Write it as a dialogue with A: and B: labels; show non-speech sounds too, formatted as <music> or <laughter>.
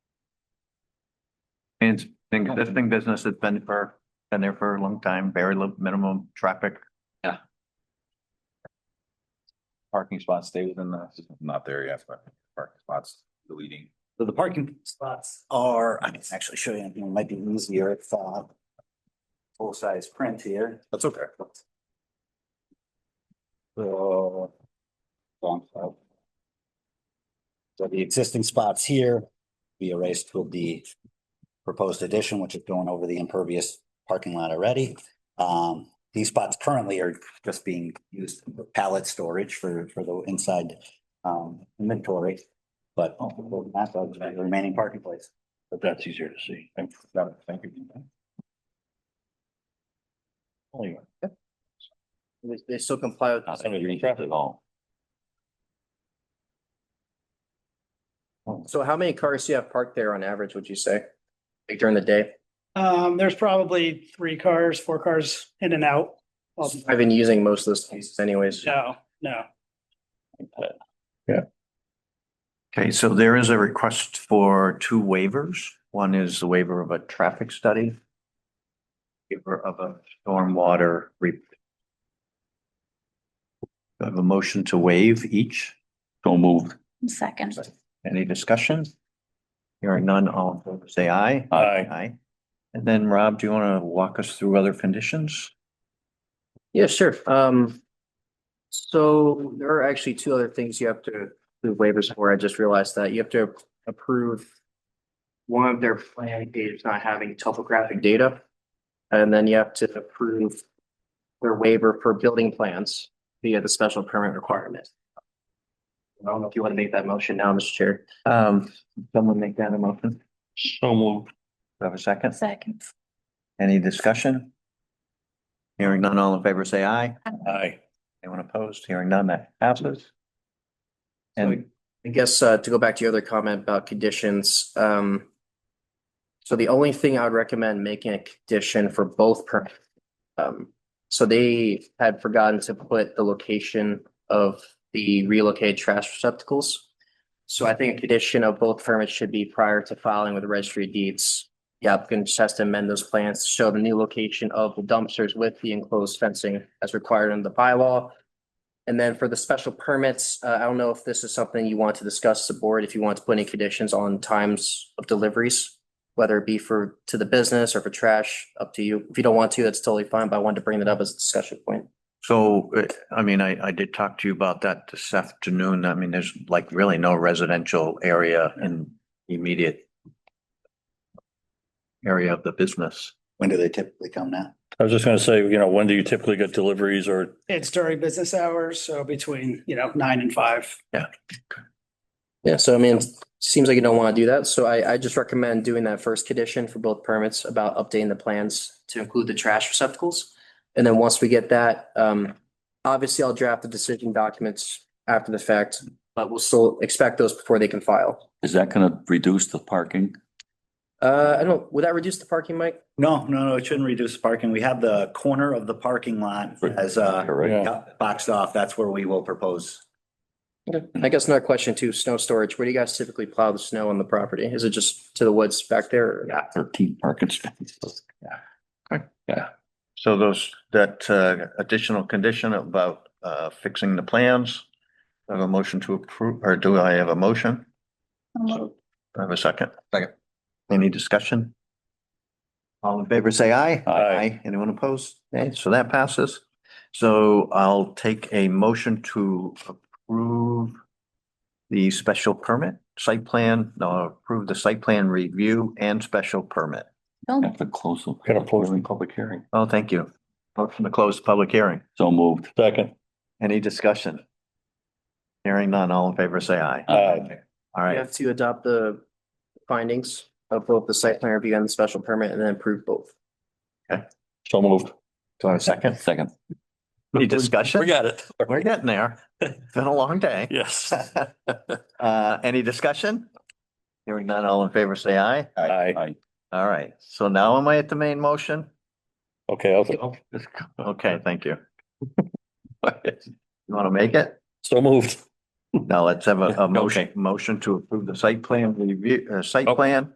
A: it's been existing business, it's been for, been there for a long time, very little minimum traffic.
B: parking spots stay within the, not there yet, but parking spots deleting.
C: So the parking spots are, I can actually show you, it might be easier if, uh, full-size print here.
B: That's okay.
C: So. long file. So the existing spots here be erased with the proposed addition, which is going over the impervious parking lot already. Um, these spots currently are just being used for pallet storage for, for the inside, um, inventory. But that's the remaining parking place.
D: But that's easier to see.
B: Thank got it. Thank you.
D: Only one.
E: They, they still comply with.
D: Not underneath it at all.
E: So how many cars do you have parked there on average, would you say? Like during the day?
F: Um, there's probably three cars, four cars in and out. Well,
E: I've been using most of those spaces anyways.
F: No, no.
A: Okay, so there is a request for two waivers. One is the waiver of a traffic study. Waiver of a stormwater re. Do I have a motion to waive each.
D: So moved.
G: Second.
A: Any discussion? Hearing none, all in favor, say aye.
D: Aye.
A: Aye. And then Rob, do you want to walk us through other conditions?
E: Yeah, sure. Um, so there are actually two other things you have to do waivers for. I just realized that you have to approve one of their plan pages not having topographic data. And then you have to approve their waiver for building plans via the special permit requirement. I don't know if you want to make that motion now, Mr. Chair.
A: Um, someone make that a motion. Do
D: So moved.
A: I have a second?
G: Second.
A: Any discussion? Hearing none, all in favor, say aye.
D: Aye.
A: Anyone opposed? Hearing none, that passes. And
E: I guess uh, to go back to your other comment about conditions, um, so the only thing I would recommend making a condition for both permits. Um, so they had forgotten to put the location of the relocated trash receptacles. So I think a condition of both permits should be prior to filing with the registry of deeds. The applicant just has to amend those plans to show the new location of the dumpsters with the enclosed fencing as required under the bylaw. And then for the special permits, uh, I don't know if this is something you want to discuss the board, if you want to put any conditions on times of deliveries, whether it be for, to the business or for trash, up to you. If you don't want to, that's totally fine, but I wanted to bring that up as a discussion point.
A: so, uh, I mean, I, I did talk to you about that this afternoon. I mean, there's like really no residential area in immediate area of the business.
C: When do they typically come now?
D: I was just gonna say, you know, when do you typically get deliveries or
F: It's during business hours, so between, you know, nine and five.
E: Yeah, so I mean, it seems like you don't want to do that, so I, I just recommend doing that first condition for both permits about updating the plans to include the trash receptacles. And then once we get that, um, obviously I'll draft the decision documents after the fact, but we'll still expect those before they can file.
D: is that gonna reduce the parking?
E: Uh, I don't, would that reduce the parking, Mike?
C: No, no, no, it shouldn't reduce parking. We have the corner of the parking lot as, uh,
D: You're right.
C: yeah, boxed off. That's where we will propose.
E: I guess another question too, snow storage, where do you guys typically plow the snow on the property? Is it just to the woods back there? or-
D: Thirteen parking spaces.
A: So those, that uh, additional condition about uh, fixing the plans. I have a motion to approve, or do I have a motion? Do I have a second.
B: Second.
A: Any discussion? All in favor, say aye.
D: Aye.
A: Anyone opposed? Okay, so that passes. So I'll take a motion to approve the special permit, site plan, no, approve the site plan review and special permit.
D: Have to close. the- Gotta close the public hearing.
A: Oh, thank you. Motion to close the public hearing.
D: So moved. Second.
A: Any discussion? Hearing none, all in favor, say aye.
D: Aye.
A: All
E: You
A: right,
E: have to adopt the findings of both the site plan review and the special permit and then approve both.
D: So moved.
A: do I have a second?
D: Second.
A: Any discussion?
D: We got it.
A: We're getting there.
D: <laughs>
A: It's been a long day.
D: Yes.
A: Uh, any discussion? Hearing none, all in favor, say aye.
D: Aye. Aye.
A: All right, so now am I at the main motion?
D: Okay, I'll.
A: Okay, thank you. You want to make it?
D: So moved.
A: Now let's have a, a motion,
D: Okay.
A: motion to approve the site plan review, uh, site
D: Oh.
A: plan